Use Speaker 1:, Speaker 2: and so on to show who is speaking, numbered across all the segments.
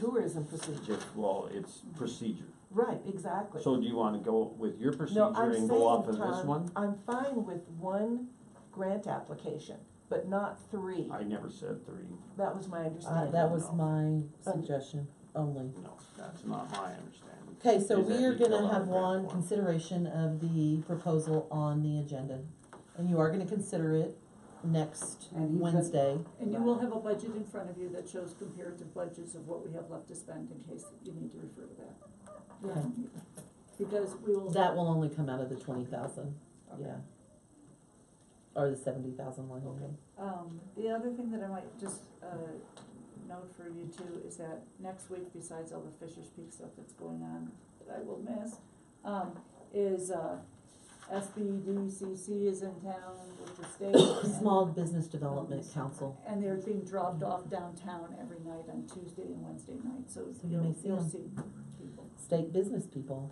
Speaker 1: tourism procedure.
Speaker 2: Just, well, it's procedure.
Speaker 1: Right, exactly.
Speaker 2: So do you wanna go with your
Speaker 1: No,
Speaker 2: procedure
Speaker 1: I'm
Speaker 2: and
Speaker 1: saying,
Speaker 2: go off of this
Speaker 1: Tom,
Speaker 2: one?
Speaker 1: I'm fine with one grant application, but not three.
Speaker 2: I never said three,
Speaker 1: That was my
Speaker 3: Uh,
Speaker 1: understanding.
Speaker 3: that was
Speaker 2: No.
Speaker 3: my suggestion only.
Speaker 2: no, that's not my understanding.
Speaker 3: Okay, so
Speaker 2: Is that
Speaker 3: we are
Speaker 2: we fill
Speaker 3: gonna
Speaker 2: out a
Speaker 3: have
Speaker 2: grant
Speaker 3: one
Speaker 2: form.
Speaker 3: consideration of the proposal on the agenda. And you are gonna consider it next
Speaker 4: And he's got-
Speaker 3: Wednesday.
Speaker 5: And you will have a budget in front of you that shows comparative budgets of what we have left to spend in case you need to refer to that.
Speaker 1: Yeah.
Speaker 5: Because we will.
Speaker 3: That will only come out of the twenty thousand,
Speaker 5: Okay.
Speaker 3: yeah. Or the seventy thousand line item.
Speaker 5: Um, the other thing that I might just, uh, note for you too is that next week, besides all the Fisher's Peak stuff that's going on that I will miss, um, is, uh, SBDCC is in town with the state. and-
Speaker 3: Small Business Development Council.
Speaker 5: And they're being dropped off downtown every night on Tuesday and Wednesday night, so
Speaker 3: So you may
Speaker 5: you'll,
Speaker 3: see
Speaker 5: you'll
Speaker 3: them.
Speaker 5: see people
Speaker 3: State business people,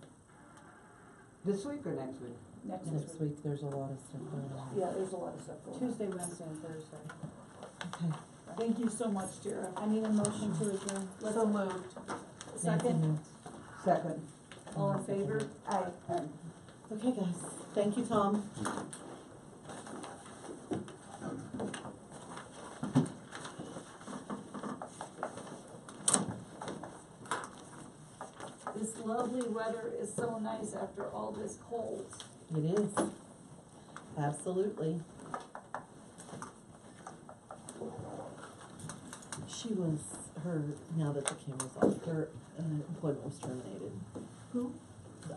Speaker 4: This week or next week?
Speaker 5: next week.
Speaker 3: next week, there's a lot of stuff going on.
Speaker 5: Yeah, there's a lot of stuff going on.
Speaker 6: Tuesday, Wednesday, and Thursday.
Speaker 3: Okay.
Speaker 5: Thank you so much, Tara.
Speaker 6: I need a motion to adjourn. Let's-
Speaker 1: So moved.
Speaker 3: Nancy
Speaker 5: Second,
Speaker 3: moves.
Speaker 4: Second.
Speaker 5: all in favor?
Speaker 1: Aye.
Speaker 4: And
Speaker 3: Okay, guys, thank you, Tom.
Speaker 5: This lovely weather is so nice after all this cold.
Speaker 3: It is. Absolutely. She was, her, now that the camera's off, her uh, employment was terminated.
Speaker 5: Who?